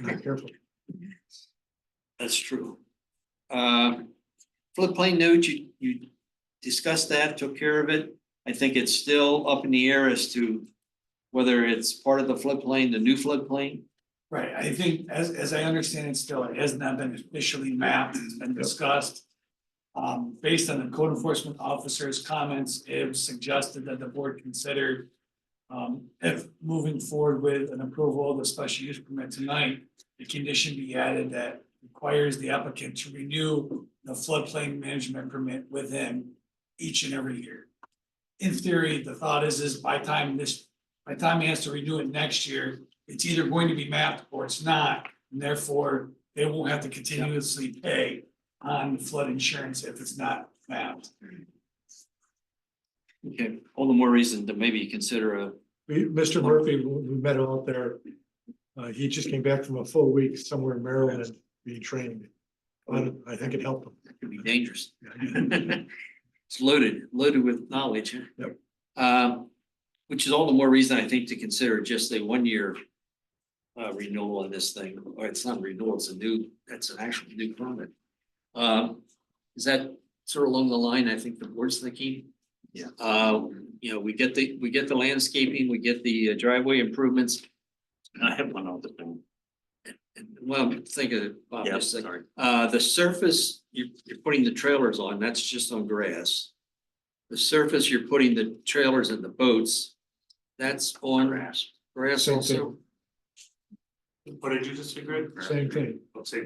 Not careful. That's true. Um, floodplain note, you, you discussed that, took care of it. I think it's still up in the air as to whether it's part of the floodplain, the new floodplain. Right, I think as as I understand it still, it has not been officially mapped, it's been discussed. Um, based on the code enforcement officer's comments, it was suggested that the board consider. Um, if moving forward with an approval of the special use permit tonight, the condition be added that requires the applicant to renew the floodplain management permit with him each and every year. In theory, the thought is, is by time this, by time he has to renew it next year, it's either going to be mapped or it's not, and therefore they won't have to continuously pay on flood insurance if it's not mapped. Okay, all the more reason to maybe consider a, We, Mr. Murphy, we we met him out there. Uh, he just came back from a full week somewhere in Maryland being trained. I, I think it helped it could be dangerous. him. It's loaded, loaded with knowledge. huh? Yep. Um, which is all the more reason I think to consider just a one-year uh, renewal on this thing, or it's not renewal, it's a new, that's an actual new permit. Um, is that sort of along the line, I think the board's thinking? Yeah. Uh, you know, we get the, we get the landscaping, we get the uh, driveway improvements. I have one other thing. Well, think of, Bob, Yeah, just a second. Uh, the surface, you're, you're putting the trailers on, that's just on grass. The surface, you're putting the trailers and the boats, that's on grass, grass Same also. What did you just agree? Same thing. Let's see.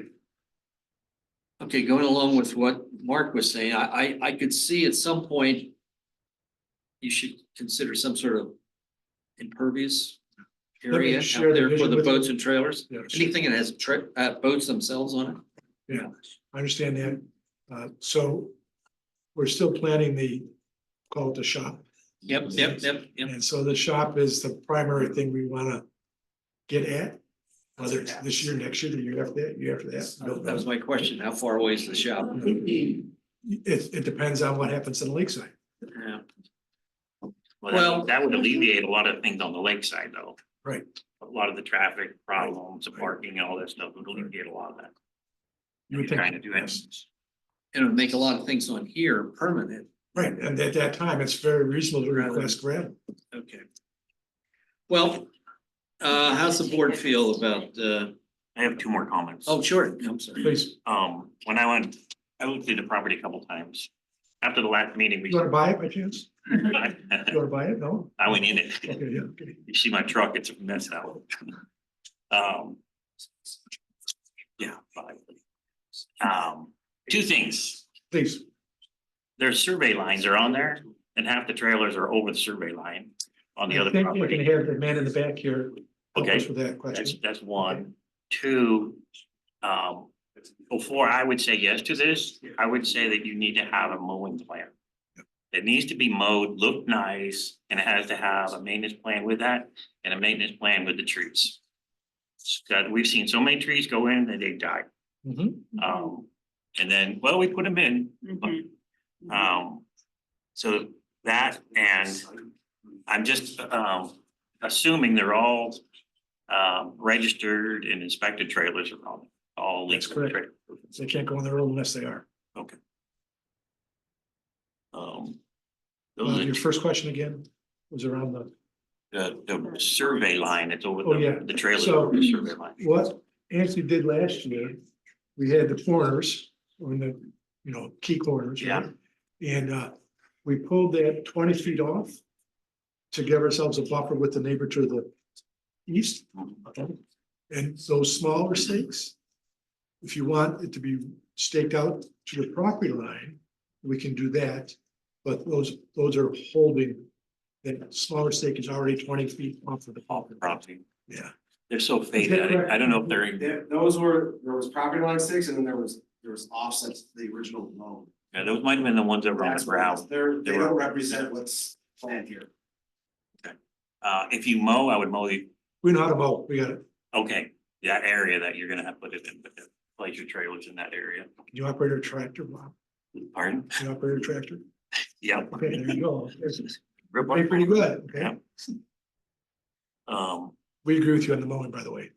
Okay, going along with what Mark was saying, I, I, I could see at some point you should consider some sort of impervious Let me area out share the there for vision the with you. boats and trailers. Yeah, sure. Anything that has tra- uh, boats themselves on it. I understand that. Uh, so we're still planning the, call it the shop. Yep, yep, yep, yep. And so the shop is the primary thing we wanna get at. Whether it's this year, next year, the year after that, year after that. don't That know. was my question. How far away is the shop? It, it depends on what happens in Lakeside. Yeah. Well, Well- that- that would alleviate a lot of things on the lakeside though. mm-hmm. Right. A lot of the traffic problems, the Right. parking and all that stuff would alleviate a lot of that. You would You're Trying to think, do yes. that. and it'd make a lot of things on here permanent. right, and at that time, it's very reasonable to Rather- request gravel. Okay. Well, uh, how's the board feel about, uh, I have two more comments. oh, sure, I'm sorry. Please, Um, when I went, I looked at the property a couple times. After the last meeting, we. you wanna buy it by chance? You I wanna buy it? No? went in it. Okay, yeah, okay. You see my truck, it's a mess out. Um. Yeah. probably. Um, two things. Please, Their survey lines are on there and half the trailers are over the survey line on the I other think you can property. have the man in the back here. help Okay. us With that That's, question. that's one. Two, um, before I would say yes to this, I would say that you need to have a mowing plan. It needs to be mowed, look nice, and it has to have a maintenance plan with that and a maintenance plan with the trees. Scott, we've seen so many trees go in and they die. Mhm. Um, and then, well, we put them in, but Um, so that and I'm just, um, assuming they're all. Um, registered and inspected trailers are all, all That's legal. correct. trailers. They can't go on their own unless they are. Um. Uh, Your Those first question again was around the, are the, the survey line, it's over Oh, yeah. the, the trailer, So- over the survey line. what Anthony did last year, we had the corners on the, you know, key corners. right? And uh, we pulled that twenty feet off to give ourselves a buffer with the neighbor to the east. And those smaller stakes, if you want it to be staked out to the property line, we can do that. But those, those are holding, that smaller stake is already twenty feet off of the property. Property. Yeah. They're so faded. I- I don't know if they're, in- There, those were, there was property line sticks and then there was, there was offsets to the original loan. yeah, those might have been the ones that were on the That's what it is. ground. They're, They they were- don't represent what's planned here. Uh, if you mow, I would mow the, We know how to vote, we got it. okay, that area that you're gonna have put it in, but place your trailers in that area. Can you operate a tractor, Bob? Pardon? Can you operate a tractor? Yeah. Okay, there you go. That's Real pretty- Pretty wonderful. good, okay? Yeah. Um, We agree with you on the mowing, by the way.